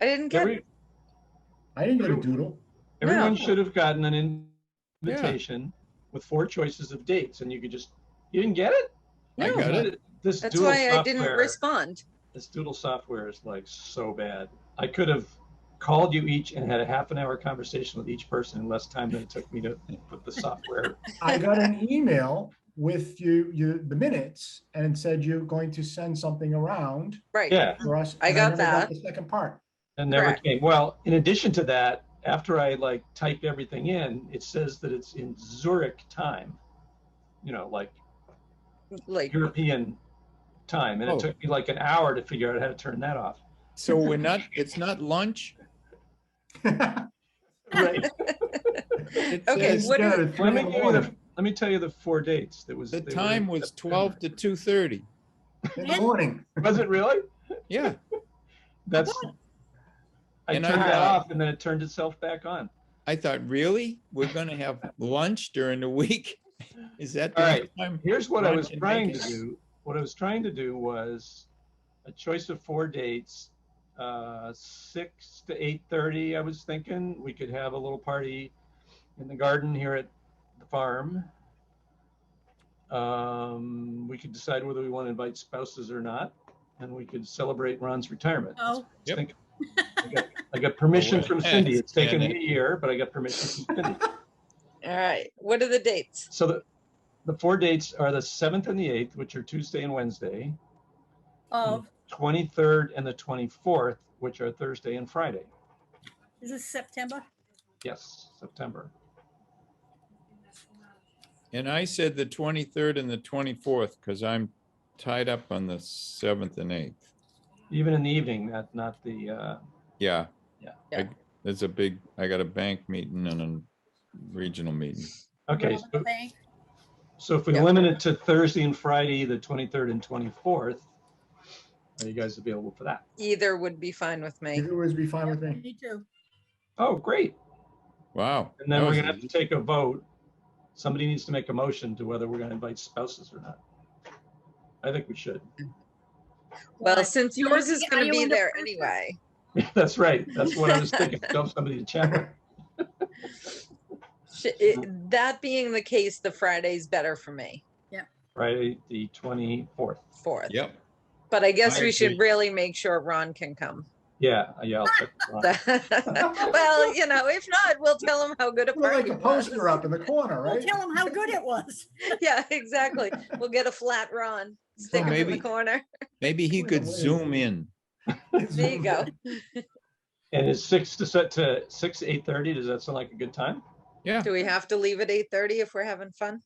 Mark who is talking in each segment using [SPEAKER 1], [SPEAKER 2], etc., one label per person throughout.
[SPEAKER 1] I didn't get
[SPEAKER 2] Every,
[SPEAKER 3] I didn't get a doodle.
[SPEAKER 2] everyone
[SPEAKER 1] No.
[SPEAKER 2] should have gotten an invitation with four choices of dates, and you could just, you didn't get it?
[SPEAKER 1] no.
[SPEAKER 4] I got it.
[SPEAKER 2] This
[SPEAKER 1] That's
[SPEAKER 2] Doodle
[SPEAKER 1] why I didn't
[SPEAKER 2] software-
[SPEAKER 1] respond.
[SPEAKER 2] This Doodle software is like so bad. I could have called you each and had a half an hour conversation with each person in less time than it took me to put the software.
[SPEAKER 3] I got an email with you, you, the minutes, and said you're going to send something around
[SPEAKER 1] Right.
[SPEAKER 2] Yeah,
[SPEAKER 3] for us.
[SPEAKER 1] I
[SPEAKER 3] and
[SPEAKER 1] got
[SPEAKER 3] never got
[SPEAKER 1] that.
[SPEAKER 3] The second part.
[SPEAKER 2] and never
[SPEAKER 1] Correct.
[SPEAKER 2] came. Well, in addition to that, after I like typed everything in, it says that it's in Zurich time, you know, like
[SPEAKER 1] Like
[SPEAKER 2] European time, and
[SPEAKER 4] Oh.
[SPEAKER 2] it took me like an hour to figure out how to turn that off.
[SPEAKER 4] So we're not, it's not lunch?
[SPEAKER 2] Right.
[SPEAKER 4] It
[SPEAKER 1] Okay,
[SPEAKER 4] says
[SPEAKER 1] what do-
[SPEAKER 3] Instead of three
[SPEAKER 2] let
[SPEAKER 3] in
[SPEAKER 2] me
[SPEAKER 3] the
[SPEAKER 2] give you the,
[SPEAKER 3] morning,
[SPEAKER 2] let me tell you the four dates that was
[SPEAKER 4] The
[SPEAKER 2] they were
[SPEAKER 4] time
[SPEAKER 2] in
[SPEAKER 4] was
[SPEAKER 2] September.
[SPEAKER 4] twelve to two thirty.
[SPEAKER 3] in the morning.
[SPEAKER 2] Was it really?
[SPEAKER 4] Yeah,
[SPEAKER 2] That's. I
[SPEAKER 4] And I
[SPEAKER 2] turned that
[SPEAKER 4] thought-
[SPEAKER 2] off and then it turned itself back on.
[SPEAKER 4] I thought, really? We're gonna have lunch during the week? Is that the
[SPEAKER 2] All
[SPEAKER 4] only time?
[SPEAKER 2] Here's what I
[SPEAKER 4] Run
[SPEAKER 2] was
[SPEAKER 4] and
[SPEAKER 2] trying to
[SPEAKER 4] make it.
[SPEAKER 2] do. What I was trying to do was a choice of four dates, uh, six to eight thirty. I was thinking we could have a little party in the garden here at the farm. Um, we could decide whether we want to invite spouses or not, and we could celebrate Ron's retirement. That's
[SPEAKER 5] Oh,
[SPEAKER 2] what I was
[SPEAKER 4] Yep.
[SPEAKER 2] thinking. I got- I got permission from Cindy. It's taken
[SPEAKER 4] And-
[SPEAKER 2] me a year, but I got permission from Cindy.
[SPEAKER 1] all right. What are the dates?
[SPEAKER 2] So the, the four dates are the seventh and the eighth, which are Tuesday and Wednesday,
[SPEAKER 5] of,
[SPEAKER 2] twenty-third and the twenty-fourth, which are Thursday and Friday.
[SPEAKER 5] is this September?
[SPEAKER 2] Yes, September.
[SPEAKER 4] And I said the twenty-third and the twenty-fourth, because I'm tied up on the seventh and eighth.
[SPEAKER 2] Even in the evening, not, not the, uh,
[SPEAKER 4] Yeah.
[SPEAKER 2] Yeah.
[SPEAKER 4] I- There's a big, I got a bank meeting and a regional meeting.
[SPEAKER 2] okay,
[SPEAKER 5] Whatever
[SPEAKER 2] so,
[SPEAKER 5] the thing.
[SPEAKER 2] so if we
[SPEAKER 1] Yeah.
[SPEAKER 2] limit it to Thursday and Friday, the twenty-third and twenty-fourth, are you guys available for that?
[SPEAKER 1] Either would be fine with me.
[SPEAKER 3] It would be fine with
[SPEAKER 5] Yep,
[SPEAKER 3] me.
[SPEAKER 5] Me too.
[SPEAKER 2] Oh, great.
[SPEAKER 4] Wow.
[SPEAKER 2] And then
[SPEAKER 4] that
[SPEAKER 2] we're
[SPEAKER 4] was
[SPEAKER 2] gonna have to take a vote. Somebody needs to make a motion to whether we're gonna invite spouses or not. I think we should.
[SPEAKER 1] Well,
[SPEAKER 5] Why?
[SPEAKER 1] since
[SPEAKER 5] You're
[SPEAKER 1] yours
[SPEAKER 5] gonna
[SPEAKER 1] is
[SPEAKER 5] be- are
[SPEAKER 1] going to
[SPEAKER 5] you
[SPEAKER 1] be
[SPEAKER 5] in the
[SPEAKER 1] there
[SPEAKER 5] process?
[SPEAKER 1] anyway.
[SPEAKER 2] That's right. That's what I was thinking. Tell somebody to check.
[SPEAKER 1] Sh- it- That being the case, the Friday's better for me.
[SPEAKER 2] Friday, the twenty-fourth.
[SPEAKER 1] Fourth.
[SPEAKER 4] Yep.
[SPEAKER 1] But I guess
[SPEAKER 2] I
[SPEAKER 1] we should
[SPEAKER 2] agree.
[SPEAKER 1] really make sure Ron can come.
[SPEAKER 2] Yeah, yeah. I'll check with Ron.
[SPEAKER 1] well, you know, if not, we'll tell him how good a
[SPEAKER 3] Put
[SPEAKER 1] party
[SPEAKER 3] like a
[SPEAKER 1] was.
[SPEAKER 3] poster up in the corner,
[SPEAKER 5] We'll
[SPEAKER 3] right?
[SPEAKER 5] tell them how good it was.
[SPEAKER 1] Yeah, exactly. We'll get a flat Ron, stick him in the
[SPEAKER 4] Maybe-
[SPEAKER 1] corner.
[SPEAKER 4] Maybe he
[SPEAKER 3] Wait a
[SPEAKER 4] could
[SPEAKER 3] minute.
[SPEAKER 4] zoom in.
[SPEAKER 1] There you go.
[SPEAKER 2] And is six to set to six, eight thirty? Does that sound like a good time?
[SPEAKER 4] Yeah.
[SPEAKER 1] Do we have to leave at eight thirty if we're having fun?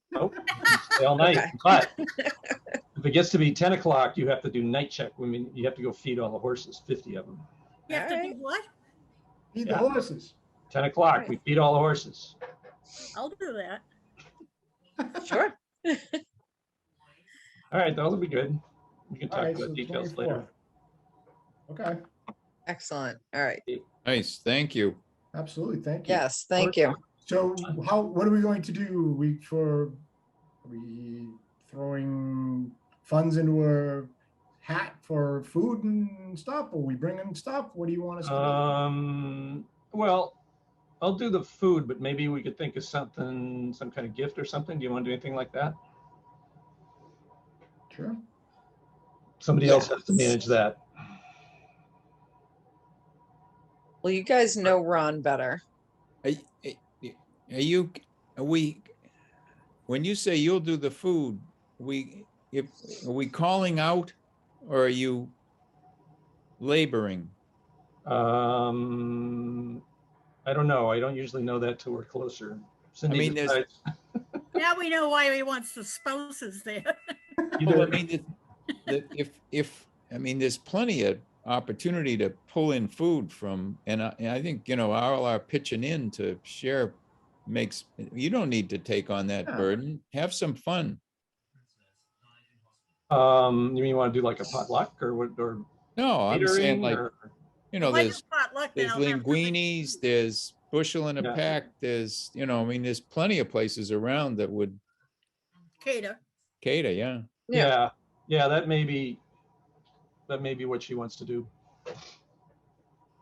[SPEAKER 2] Stay all night.
[SPEAKER 1] Okay.
[SPEAKER 2] But if it gets to be ten o'clock, you have to do night check. I mean, you have to go feed all the horses, fifty of them.
[SPEAKER 5] You have to do
[SPEAKER 1] Alright.
[SPEAKER 5] what?
[SPEAKER 3] Feed the
[SPEAKER 2] Yeah.
[SPEAKER 3] horses.
[SPEAKER 2] Ten o'clock, we feed all the horses.
[SPEAKER 5] I'll do that.
[SPEAKER 1] Sure.
[SPEAKER 2] All right, that'll be good. We can
[SPEAKER 3] All
[SPEAKER 2] talk
[SPEAKER 3] right, so
[SPEAKER 2] about details later.
[SPEAKER 3] 24. Okay,
[SPEAKER 1] Excellent. All right.
[SPEAKER 4] Nice. Thank you.
[SPEAKER 3] absolutely, thank you.
[SPEAKER 1] Yes, thank you.
[SPEAKER 3] So how, what are we going to do? We for, are we throwing funds into a hat for food and stuff? Or we bringing stuff? What do you want us to
[SPEAKER 2] Um, well, I'll do the food, but maybe we could think of something, some kind of gift or something. Do you want to do anything like that?
[SPEAKER 3] do? Sure.
[SPEAKER 2] Somebody else has to
[SPEAKER 1] Yes.
[SPEAKER 2] manage that.
[SPEAKER 1] Well, you guys know Ron better.
[SPEAKER 4] Are y- are you, are we, when you say you'll do the food, we, if, are we calling out or are you laboring?
[SPEAKER 2] Um, I don't know. I don't usually know that till we're closer. Cindy
[SPEAKER 4] mean, there's-
[SPEAKER 2] decides
[SPEAKER 5] Now we know why he wants the spouses there.
[SPEAKER 4] Well, I
[SPEAKER 2] either-
[SPEAKER 4] mean, it- the- if, if, I mean, there's plenty of opportunity to pull in food from, and I, and I think, you know, all our pitching in to share makes, you don't need to take on that
[SPEAKER 3] Yeah.
[SPEAKER 4] burden. Have some fun.
[SPEAKER 2] Um, you mean you want to do like a potluck or what, or
[SPEAKER 4] No, I'm saying
[SPEAKER 2] catering
[SPEAKER 4] Oh, like,
[SPEAKER 2] or?
[SPEAKER 4] you know,
[SPEAKER 5] Why do
[SPEAKER 4] there's,
[SPEAKER 5] potluck
[SPEAKER 4] there's
[SPEAKER 5] now? Have something-
[SPEAKER 4] linguinis, there's bushel in a
[SPEAKER 2] Yeah.
[SPEAKER 4] pack, there's, you know, I mean, there's plenty of places around that would
[SPEAKER 5] Cater.
[SPEAKER 4] cater, yeah.
[SPEAKER 1] Yeah.
[SPEAKER 2] Yeah, yeah, that may be, that may be what she wants to do.